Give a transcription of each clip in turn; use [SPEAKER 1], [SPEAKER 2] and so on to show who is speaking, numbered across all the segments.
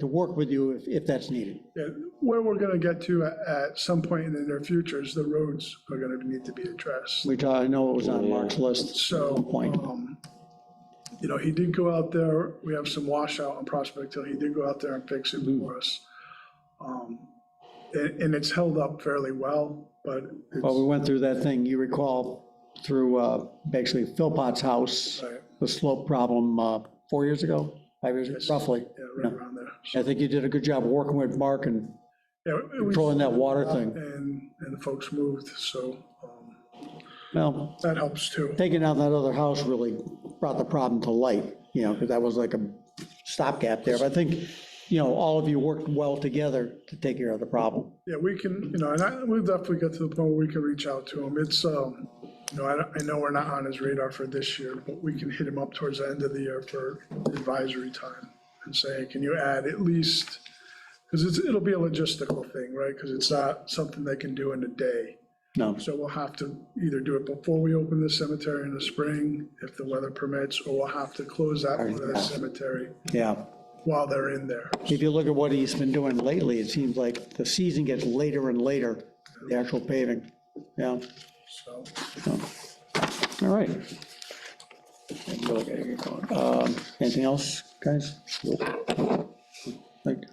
[SPEAKER 1] to work with you if, if that's needed.
[SPEAKER 2] Yeah, Where we're going to get to a- at some point in the near future is the roads are going to need to be addressed.
[SPEAKER 1] Which I know it was on Mark's list at
[SPEAKER 2] So,
[SPEAKER 1] one point.
[SPEAKER 2] um, you know, he did go out there, we have some washout on Prospect Hill, he did go out there and fix it for us. Um, And, and it's held up fairly well, but
[SPEAKER 1] Well, we
[SPEAKER 2] it's,
[SPEAKER 1] went through that thing, you recall, through uh, basically Philpott's house,
[SPEAKER 2] Right.
[SPEAKER 1] the slope problem uh, four years ago, five years, ago, roughly.
[SPEAKER 2] yeah, right around there. So,
[SPEAKER 1] I think you did a good job working with Mark and
[SPEAKER 2] yeah, it was-
[SPEAKER 1] controlling that water thing.
[SPEAKER 2] And, and the folks moved, so um,
[SPEAKER 1] Well,
[SPEAKER 2] that helps too.
[SPEAKER 1] taking out that other house really brought the problem to light, you know, because that was like a stopgap there. But I think, you know, all of you worked well together to take care of the problem.
[SPEAKER 2] Yeah, we can, you know, and I, we'll definitely get to the point where we can reach out to him. It's, um, you know, I, don't- I know we're not on his radar for this year, but we can hit him up towards the end of the year for advisory time and say, can you add at least, because it's, it'll be a logistical thing, right? Because it's not something they can do in a day.
[SPEAKER 1] No,
[SPEAKER 2] So we'll have to either do it before we open the cemetery in the spring, if the weather permits, or we'll have to close that part of the cemetery
[SPEAKER 1] yeah.
[SPEAKER 2] while they're in there.
[SPEAKER 1] If you look at what he's been doing lately, it seems like the season gets later and later, the actual paving. Yeah,
[SPEAKER 2] So,
[SPEAKER 1] all right. Um, Anything else, guys? Thank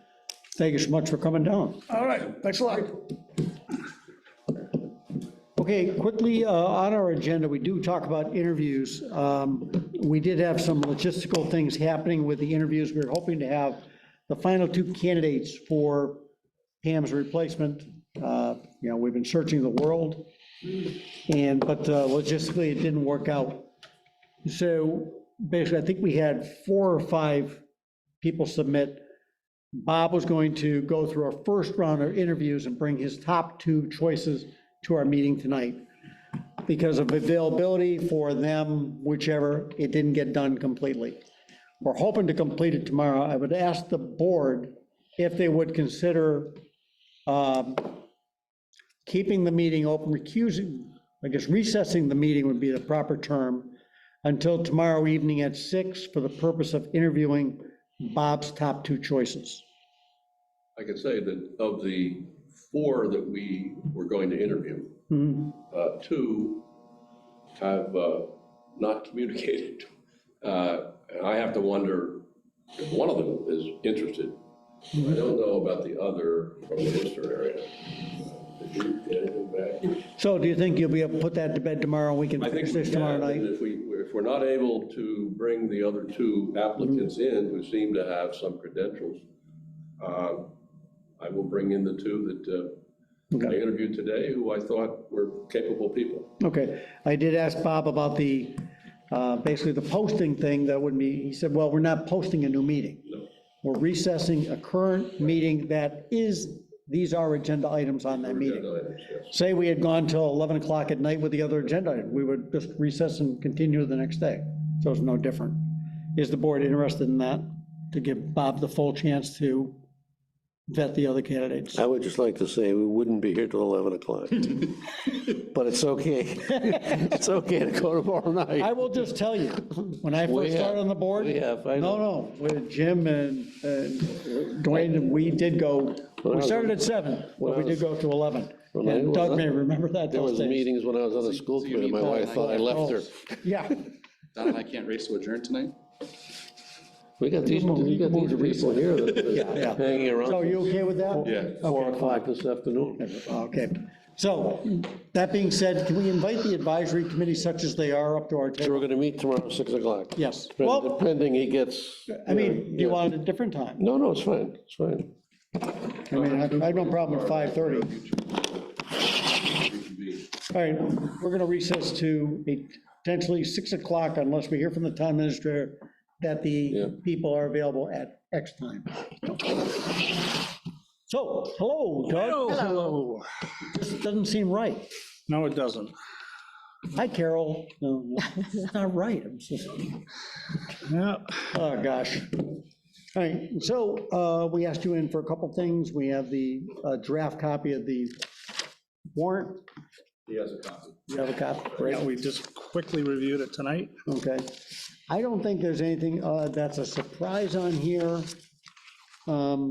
[SPEAKER 1] thank you so much for coming down.
[SPEAKER 2] all right, thanks a lot.
[SPEAKER 1] Okay, quickly, uh, on our agenda, we do talk about interviews. Um, We did have some logistical things happening with the interviews. We were hoping to have the final two candidates for Pam's replacement. Uh, You know, we've been searching the world, and, but uh, logistically, it didn't work out. So basically, I think we had four or five people submit. Bob was going to go through our first round of interviews and bring his top two choices to our meeting tonight. Because of availability for them, whichever, it didn't get done completely. We're hoping to complete it tomorrow. I would ask the board if they would consider um, keeping the meeting open, recusing, I guess recessing the meeting would be the proper term, until tomorrow evening at six for the purpose of interviewing Bob's top two choices.
[SPEAKER 3] I can say that of the four that we were going to interview, uh, two have uh, not communicated. Uh, And I have to wonder if one of them is interested. I don't know about the other from the Worcester area. Did you get anything back?
[SPEAKER 1] So do you think you'll be able to put that to bed tomorrow, and we can
[SPEAKER 3] I think
[SPEAKER 1] finish
[SPEAKER 3] we
[SPEAKER 1] this tomorrow
[SPEAKER 3] can, and
[SPEAKER 1] night?
[SPEAKER 3] If we, if we're not able to bring the other two applicants
[SPEAKER 1] Mm-hmm.
[SPEAKER 3] in who seem to have some credentials, uh, I will bring in the two that uh, I
[SPEAKER 1] Okay.
[SPEAKER 3] interviewed today who I thought were capable people.
[SPEAKER 1] Okay, I did ask Bob about the, uh, basically the posting thing that would be, he said, well, we're not posting a new meeting. We're recessing a current meeting that is, these are agenda items on that meeting. Say we had gone till 11 o'clock at night with the other agenda, item, we would just recess and continue the next day. So it's no different. Is the board interested in that, to give Bob the full chance to vet the other candidates?
[SPEAKER 4] I would just like to say, we wouldn't be here till 11 o'clock. But it's okay. It's okay to go tomorrow
[SPEAKER 1] I
[SPEAKER 4] night.
[SPEAKER 1] will just tell you, when I
[SPEAKER 4] We
[SPEAKER 1] first
[SPEAKER 4] have-
[SPEAKER 1] started on the board.
[SPEAKER 4] we have, I
[SPEAKER 1] No, no, with Jim and and Dwayne, we did go, we
[SPEAKER 4] was-
[SPEAKER 1] started at 7, but we
[SPEAKER 4] I
[SPEAKER 1] did
[SPEAKER 4] was-
[SPEAKER 1] go to 11.
[SPEAKER 4] I
[SPEAKER 1] And Doug
[SPEAKER 4] was-
[SPEAKER 1] may remember that
[SPEAKER 4] There
[SPEAKER 1] those
[SPEAKER 4] was
[SPEAKER 1] days.
[SPEAKER 4] meetings when I was on the school committee, my wife thought I left her.
[SPEAKER 1] Yeah,
[SPEAKER 5] Don and I can't race to adjourn tonight?
[SPEAKER 4] We got these, we got these people here that
[SPEAKER 1] yeah.
[SPEAKER 4] are hanging around
[SPEAKER 1] so you okay with that?
[SPEAKER 5] Yeah.
[SPEAKER 4] till 4 o'clock this afternoon.
[SPEAKER 1] Okay, so, that being said, can we invite the advisory committee such as they are up to our
[SPEAKER 4] So
[SPEAKER 1] table?
[SPEAKER 4] we're going to meet tomorrow at 6 o'clock.
[SPEAKER 1] Yes,
[SPEAKER 4] Depend-
[SPEAKER 1] well,
[SPEAKER 4] Depending he gets.
[SPEAKER 1] I mean, do you
[SPEAKER 4] yeah.
[SPEAKER 1] want it at a different time?
[SPEAKER 4] No, no, it's fine, it's fine.
[SPEAKER 1] I mean, I I have no problem at 5:30. All right, we're going to recess to potentially 6 o'clock unless we hear from the town administrator that
[SPEAKER 4] Yeah.
[SPEAKER 1] the people are available at X time. So, hello, Doug. Hello. This doesn't seem right.
[SPEAKER 6] No, it doesn't.
[SPEAKER 1] Hi, Carol. No, no, it's not right. I'm so-
[SPEAKER 6] Yeah.
[SPEAKER 1] Oh, gosh. All right, so uh, we asked you in for a couple things. We have the uh, draft copy of the warrant.
[SPEAKER 3] He has a copy.
[SPEAKER 1] You have a copy?
[SPEAKER 6] Yeah, we just quickly reviewed it tonight.
[SPEAKER 1] Okay. I don't think there's anything uh, that's a surprise on here. Um,